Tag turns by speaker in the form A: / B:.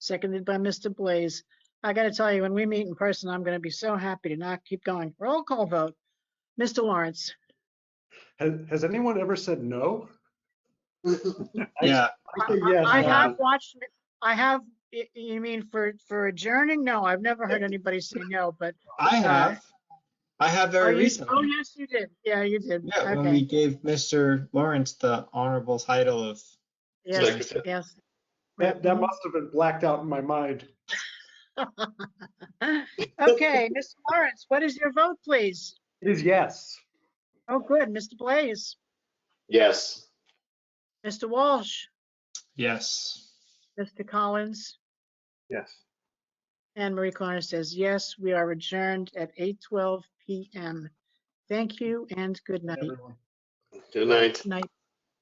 A: seconded by Mr. Blaze. I gotta tell you, when we meet in person, I'm gonna be so happy to not keep going. Roll call vote. Mr. Lawrence,
B: Has, has anyone ever said no?
C: Yeah,
B: I think
A: I-
B: yes.
A: I
C: uh,
A: have watched, I have, y- you mean for, for adjourning? No, I've never heard anybody say no, but.
C: I have. I have
A: Oh,
C: very
A: you- Oh,
C: recently.
A: yes, you did. Yeah, you did.
C: Yeah, when we
A: Okay.
C: gave Mr. Lawrence the honorable title of,
A: Yes, yes.
B: That, that must have been blacked out in my mind.
A: Okay, Mr. Lawrence, what is your vote, please?
B: It is yes.
A: Oh, good. Mr. Blaze,
D: Yes.
A: Mr. Walsh,
C: yes.
A: Mr. Collins,
B: Yes.
A: and Marie Connor says, yes, we are adjourned at 8:12 PM. Thank you and good night.
B: Everyone.
D: Good night.
A: Night.